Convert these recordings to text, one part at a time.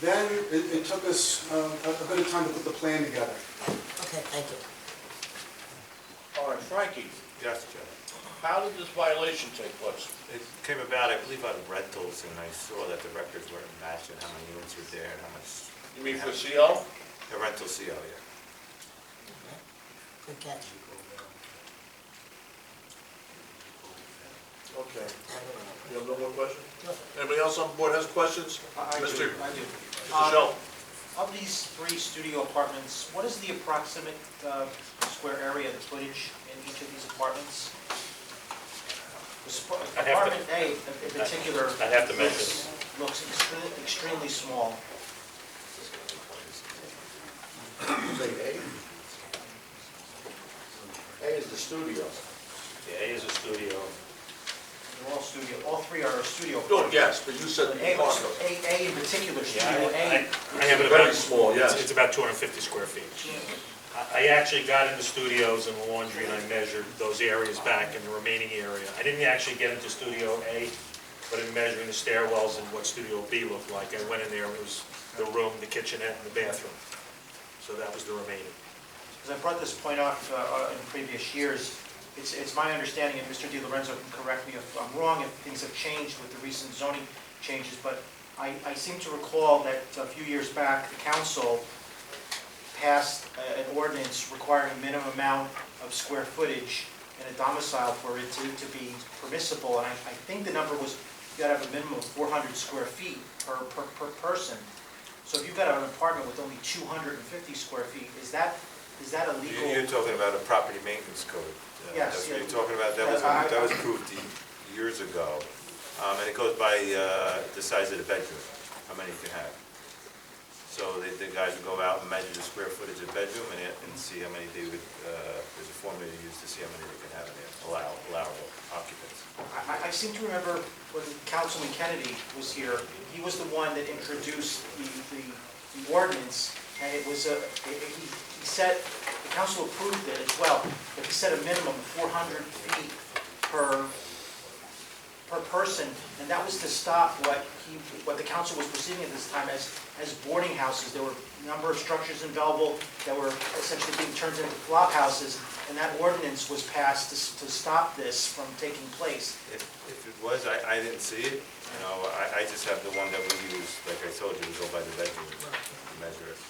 Then it, it took us um, a a bit of time to put the plan together. Okay, thank you. All right, Frankie, Yes, Jeff. how did this violation take place? It came about, I believe, out of rentals, and I saw that the records weren't matching, how many units were there and how much. You mean for CO? The rental CO, yeah. Good catch. Okay. I don't know. You have no more questions? Nope. Anybody else on board has questions? I- I do- Mr. I do. Mr. Shell? Um, Of these three studio apartments, what is the approximate uh, square area, the footage in each of these apartments? The sp- I'd have to- Apartment A in- in particular. I'd have to measure. looks- Looks extre- extremely small. A is the studio. Yeah, A is a studio. They're all studio, all three are studio. No, apartments. yes, but you said A, apartment. A- A in particular, Yeah, studio I- A. I I have it about... Very small, yes. It's- It's about 250 square feet. I- I actually got into studios and laundry, and I measured those areas back in the remaining area. I didn't actually get into Studio A, but in measuring the stairwells and what Studio B looked like, I went in there, and it was the room, the kitchenette, and the bathroom. So that was the remaining. Because I brought this point up uh, uh, in previous years, it's, it's my understanding, and Mr. Di Lorenzo can correct me if I'm wrong, if things have changed with the recent zoning changes, but I, I seem to recall that a few years back, the council passed a- an ordinance requiring a minimum amount of square footage in a domicile for it to, to be permissible, and I, I think the number was, you gotta have a minimum of four hundred square feet per, per, per person. So if you've got an apartment with only two hundred and fifty square feet, is that, is that a You- You're legal? talking about a property maintenance code. Uh, That's Yes, what yeah. you're talking about, that was, I- I- that was approved y- years ago. Um, And it goes by uh, the size of the bedroom, how many you can have. So the, the guys would go out and measure the square footage of bedroom and, it- and see how many they would, uh, there's a formula to use to see how many they can have in there, allow- allowable occupants. I, I- I seem to remember when Councilman Kennedy was here, he was the one that introduced the, the- the ordinance, and it was a, it- it- he he said, the council approved it as well, but he set a minimum of four hundred feet per, per person, and that was to stop what he, what the council was perceiving at this time as, as boarding houses. There were a number of structures in Belleville that were essentially being turned into flop houses, and that ordinance was passed to, s- to stop this from taking place. If, if it was, I, I didn't see it, you know, I, I just have the one that we use, like I told you, we go by the bedroom, and measure it.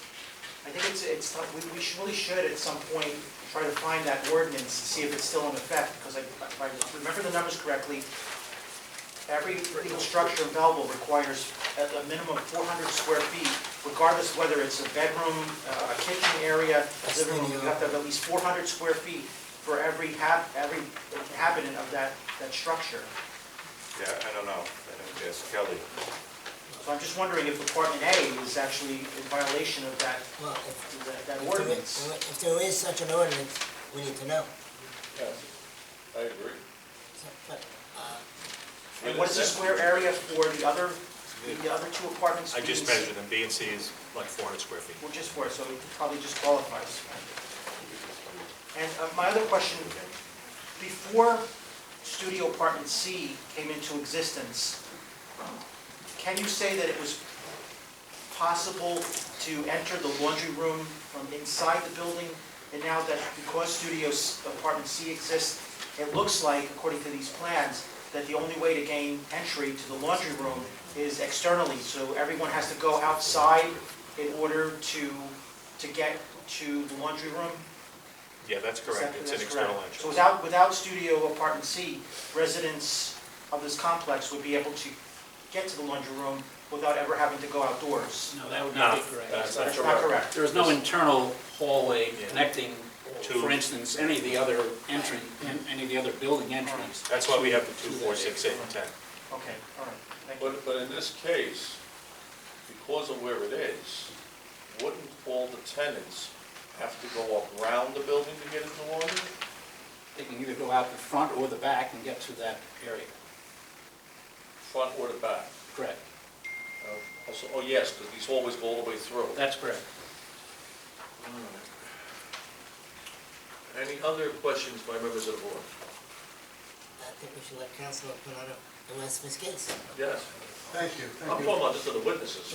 I think it's, it's, tough. we, we should- really should at some point try to find that ordinance, and see if it's still in effect, because I, if I remember the numbers correctly, every legal structure in Belleville requires a, a minimum of four hundred square feet, regardless of whether it's a bedroom, uh, a kitchen area, a living room, you have to have at least four hundred square feet for every hab, every inhabitant of that, that structure. Yeah, I don't know, I don't guess, Kelly. So I'm just wondering if apartment A is actually in violation of that, Well, if, that- if that there ordinance. is- if there is such an ordinance, we need to know. I agree. So, But And what is the square area for the other, the other two apartments? I just measured them, B and C is like 400 square feet. Well, just for, so it probably just qualifies. And uh, my other question, before Studio Apartment C came into existence, can you say that it was possible to enter the laundry room from inside the building? And now that because Studio S- Apartment C exists, it looks like, according to these plans, that the only way to gain entry to the laundry room is externally. So everyone has to go outside in order to, to get to the laundry room? Yeah, that's Is correct, that- it's an that's external correct? So entrance. without, without Studio Apartment C, residents of this complex would be able to get to the laundry room without ever having to go outdoors? No, that would No, not be correct. that's not That's correct. not correct? There is no internal hallway Yeah. connecting, To- for instance, any of the other entry, an- any of the other building entries. That's why we have the 2, 4, 6, 8, and 10. Okay, all right, thank you. But, but in this case, because of where it is, wouldn't all the tenants have to go up around the building to get into laundry? They can either go out the front or the back and get to that area. Front or the back? Correct. Uh, Also, oh yes, because these hallways go all the way through. That's correct. Any other questions by members of the board? I think we should let council put on a, unless Ms. Gates. Yes. Thank you, I'm thank you. talking about this to the witnesses.